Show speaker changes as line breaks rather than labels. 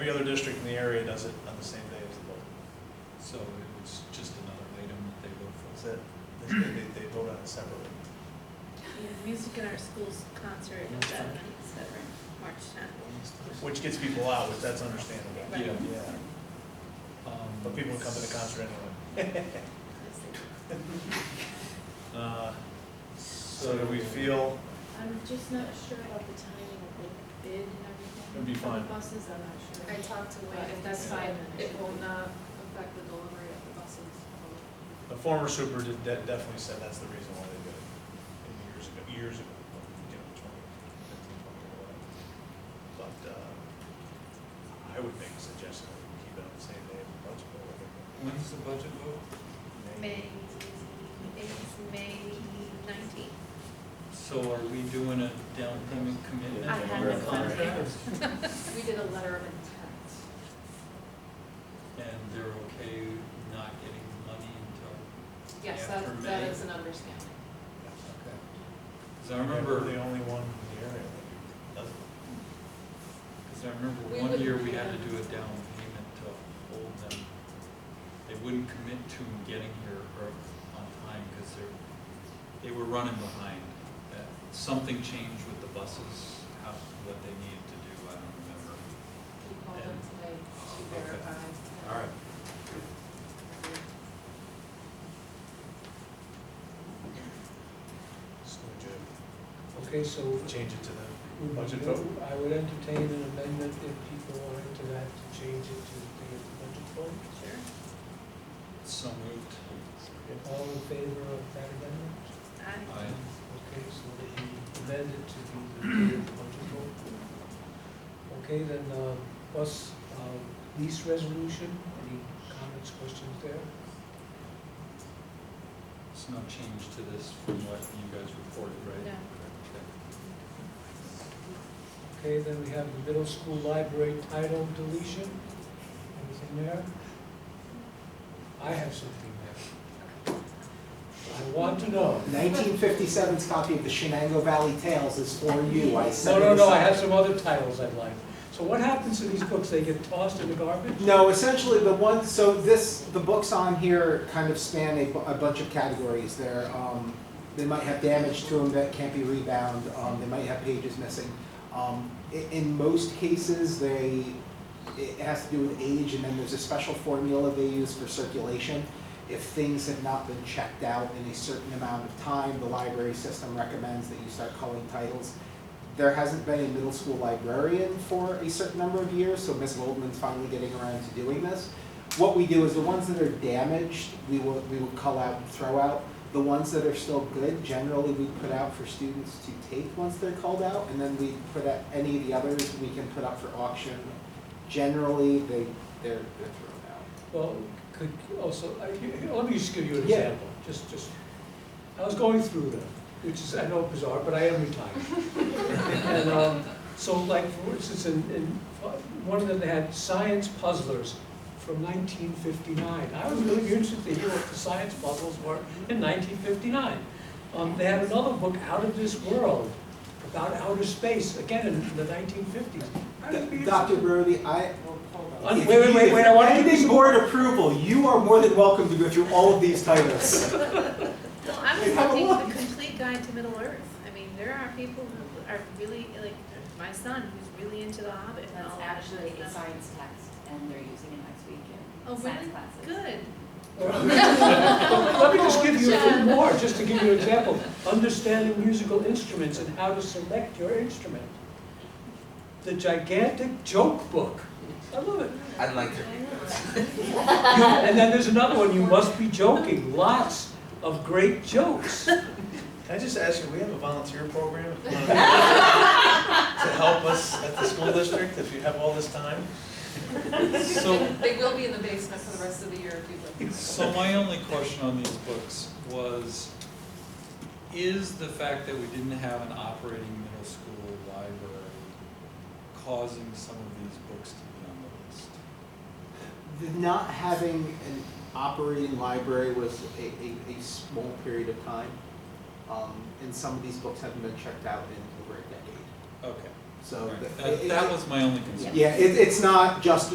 Every other district in the area does it on the same day as the vote.
So it was just another item that they vote
Is
for.
that, they, they- they vote on it separately.
Yeah, music in our schools concert is that night, so we're March tenth.
Which gets people out, which that's understandable.
Yeah.
Right.
Yeah,
Um,
but people come to the concert anyway. Uh, So do we feel,
I'm just not sure about the timing of the bid and everything.
It'll be
for the
fine.
Buses, I'm not sure.
I talked to Wayne, if that's fine, it will not affect the delivery of the buses.
the former super did, de- definitely said that's the reason why they did it. And Years ago, years ago, you know, twenty, fifteen, twenty, or whatever. But, uh, I would make a suggestion that we keep it on the same day as the budget vote. I think.
When's the budget vote?
May, it's May nineteenth.
So are we doing a down payment commitment?
I
on
had the
the
contract.
We did a letter of intent.
And they're okay not getting money until,
Yes,
Yeah, for
that, that
May.
is an understanding.
okay. Because I
We're
remember,
The only one in the area that doesn't.
because I remember
We
one
would-
year we had to do a down payment to hold them. They wouldn't commit to getting here or on time because they're, they were running behind. Uh, Something changed with the buses, how, what they needed to do, I don't remember.
He called them today to
Okay.
verify.
All right.
So we
Okay, so
could Change it to
we
the
would
budget
do-
vote.
I would entertain an amendment if people wanted to that, to change it to the day of the budget vote.
Sure.
So moved.
All in favor of that amendment?
Aye.
I,
Okay, so the amended to be the day of the budget vote. Okay, then, uh, bus, uh, lease resolution, any comments, questions there?
It's no change to this from what you guys reported, right?
No.
Okay.
Okay, then we have the middle school library title deletion, anything there? I have something there. I want to know.
1957's copy of the Shenango Valley Tales is for you, I
No,
said.
no, no, I have some other titles I'd like. So what happens to these books? They get tossed in the garbage?
No, essentially the one, so this, the books on here kind of span a, bu- a bunch of categories. They're, um, they might have damage to them that can't be rebound, um, they might have pages missing. Um, i- in most cases, they, it has to do with age and then there's a special formula they use for circulation. If things have not been checked out in a certain amount of time, the library system recommends that you start culling titles. there hasn't been a middle school librarian for a certain number of years, so Ms. Goldman's finally getting around to doing this. What we do is the ones that are damaged, we will, we will cull out and throw out. The ones that are still good, generally we put out for students to take once they're culled out, and then we put out, any of the others, we can put up for auction. Generally, they, they're, they're thrown
Well, could, also, I, here- let me just give you an
Yeah.
example, just, just, I was going through them, which is, I know bizarre, but I am retired. And, um, so like, for instance, in, in, one of them had science puzzlers from nineteen fifty-nine. I was really interested to hear what the science puzzles were in nineteen fifty-nine. Um, they had another book, Out of This World, about outer space, again, in the nineteen fifties.
out. Dr. Brody, I,
Uh, wait,
if
wait,
you-
wait, wait, I wanna
if
do
Pending
some-
board approval, you are more than welcome to go through all of these titles.
well, I was
You have a
looking at
look.
the complete guide to Middle Earth. I mean, there are people who are really, like, my son, who's really into The Hobbit and all
That's
that
actually a
stuff.
science text, and they're using it next week
Oh,
in
really?
science classes.
Good.
Let me just give you a few
John.
more, just to give you an example. Understanding musical instruments and how to select your instrument. The gigantic joke book. I love it.
I'd like
I
to.
know.
And then there's another one, you must be joking. Lots of great jokes.
Can I just ask you, we have a volunteer program if you wanna- to help us at the school district if you have all this time?
So,
They will be in the basement for the rest of the year if you'd like.
so my only question on these books was, is the fact that we didn't have an operating middle school library causing some of these books to be on the list?
Not having an operating library was a, a, a small period of time. Um, and some of these books haven't been checked out in over a decade.
Okay,
so.
Right.
th-
That,
it-
that was my only concern.
Yeah, it, it's not just